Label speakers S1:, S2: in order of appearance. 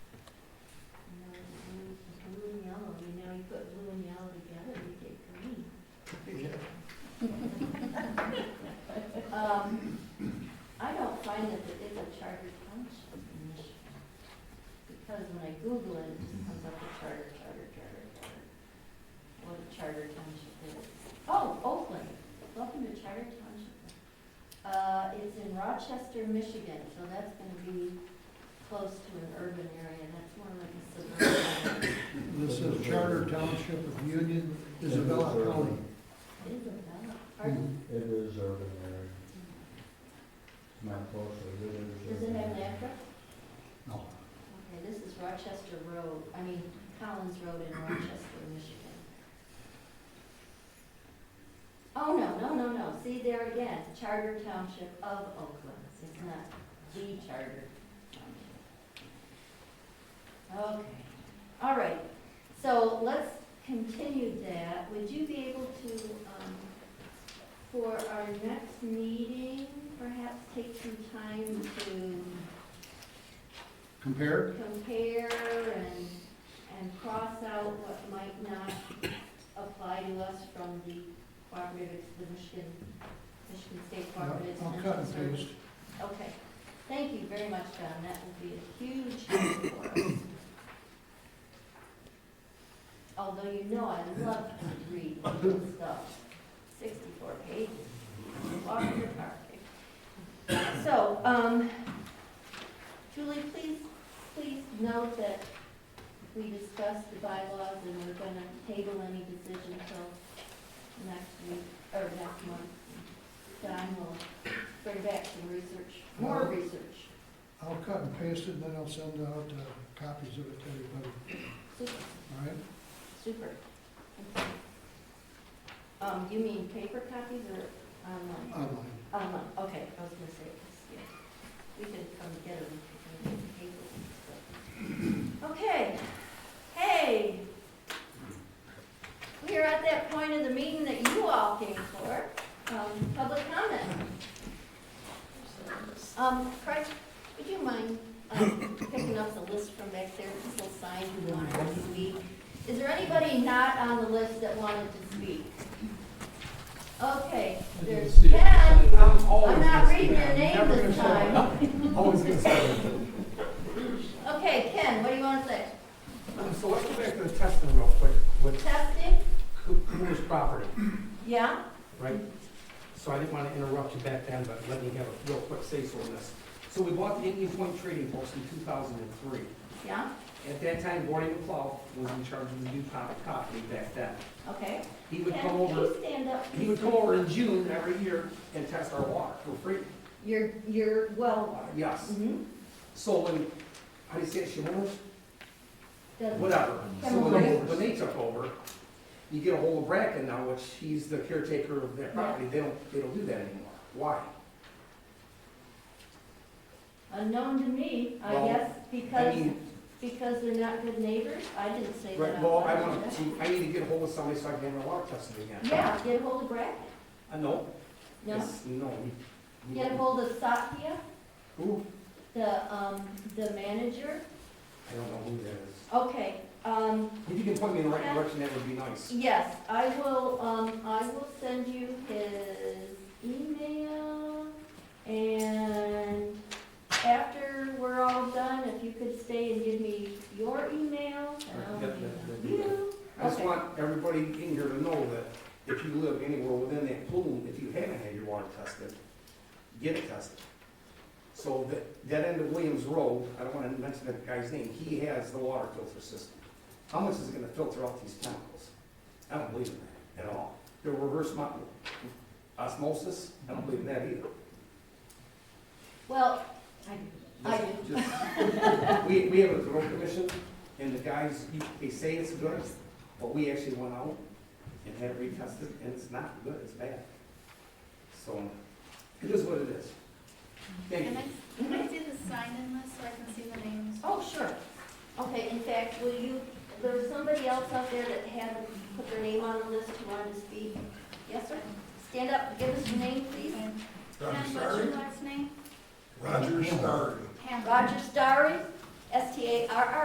S1: Um, because when I Google it, it just comes up with charter, charter, charter, charter. What a charter township is. Oh, Oakland, welcome to Charter Township. Uh, it's in Rochester, Michigan, so that's gonna be close to an urban area, that's more like a suburban. area.
S2: This is Charter Township of Union, Isabella County.
S1: It is a valley. Pardon?
S3: It is urban area, not close, but it is.
S1: Does it
S3: urban
S1: have an
S3: area.
S1: address?
S2: No.
S1: Okay, this is Rochester Road, I mean Collins Road in Rochester, Michigan. Oh, no, no, no, no, see there again, Charter Township of Oakland, it's not the Charter Township. Okay, all right, so let's continue that, would you be able to, um, for our next meeting, perhaps take some time to
S2: Compared?
S1: compare and, and cross out what might not apply to us from the cooperative, the Michigan, Michigan State Cooperative.
S2: I'll cut and
S1: Extension
S2: paste.
S1: Service. Okay, thank you very much, John, that will be a huge help for us. Although you know I love to read legal stuff, sixty-four pages, walk in the park. So, um, Julie, please, please note that we discussed the bylaws and we're gonna table any decision till next week, or next month. Don will bring back some research, more research.
S2: I'll cut and paste it, and then I'll send out uh, copies of it to everybody,
S1: Super,
S2: all right?
S1: super. Thank you. Um, you mean paper copies or online?
S2: Online.
S1: Online, okay, I was gonna say, yeah, we can come together and make the paper. ones, but- Okay, hey. We are at that point of the meeting that you all came for, um, public comment. Um, Craig, would you mind, um, picking up the list from back there, this little sign you wanted to speak? Is there anybody not on the list that wanted to speak? Okay, there's Ken.
S4: I'm
S1: I'm
S4: always
S1: not
S4: gonna
S1: reading
S4: speak.
S1: your
S4: I'm
S1: name
S4: never
S1: this
S4: gonna shut
S1: time.
S4: up. Always gonna say it.
S1: Okay, Ken, what do you want to say?
S4: Um, So let's go back to the testing real quick with
S1: Testing?
S4: Coo- Cooper's property,
S1: Yeah?
S4: right? So I didn't want to interrupt you back then, but let me have a real quick say so on this. So we bought the Indian Point Trading Post in two thousand and three.
S1: Yeah?
S4: At that time, Gordy McLeod was in charge of the new pop- property back then.
S1: Okay.
S4: He would
S1: Ken,
S4: come
S1: can
S4: over,
S1: you stand up?
S4: he would come over in June every year and test our water for free.
S1: You're, you're well water.
S4: Yes.
S1: Mm-hmm.
S4: So when, how do you say it, Shimon? whatever. So
S1: Chemical
S4: when they,
S2: weapons.
S4: when they took over, you get a hold of Bracken now, which he's the caretaker of their property, they don't, they don't do that anymore. Why?
S1: Unknown to me, I
S4: Well,
S1: guess,
S4: I
S1: because,
S4: mean,
S1: because they're not good neighbors? I didn't say that.
S4: right,
S1: out
S4: well, I
S1: loud.
S4: want to, I need to get a hold of somebody so I can have my water tested again.
S1: Yeah, get hold of Bracken.
S4: Uh, no,
S1: No?
S4: it's, no. we- we
S1: Get
S4: don't-
S1: hold of Sakia,
S4: Who?
S1: the, um, the manager.
S4: I don't know who that is.
S1: Okay, um,
S4: If you can point me in the right
S1: Yeah.
S4: direction, that would be nice.
S1: Yes, I will, um, I will send you his email, and after we're all done, if you could stay and give me your email, and I'll
S4: Right, that- that- that'd be
S1: give you.
S4: I just
S1: Okay.
S4: want everybody in here to know that if you live anywhere within that plume, if you haven't had your water tested, get it tested. So that, that end of Williams Road, I don't wanna mention that guy's name, he has the water filter system. How much is it gonna filter out these chemicals? I don't believe in that at all. The reverse mo- osmosis, I don't believe in that either.
S1: Well, I, I,
S4: Just- just- We, we have a road commission, and the guys, you- they say it's good, but we actually went out and had it retested, and it's not good, it's bad. So, it is what it is. Thank
S5: Can
S4: you.
S5: I, can I see the sign in this so I can see the names?
S1: oh, sure, okay, in fact, will you, there was somebody else out there that had put their name on the list who wanted to speak. Yes, sir, stand up, give us your name, please.
S5: And
S6: Roger
S5: Ken, what's your
S6: Starry.
S5: last name?
S6: Roger Starry.
S5: Hamlin.
S1: Roger Starry, S T A R R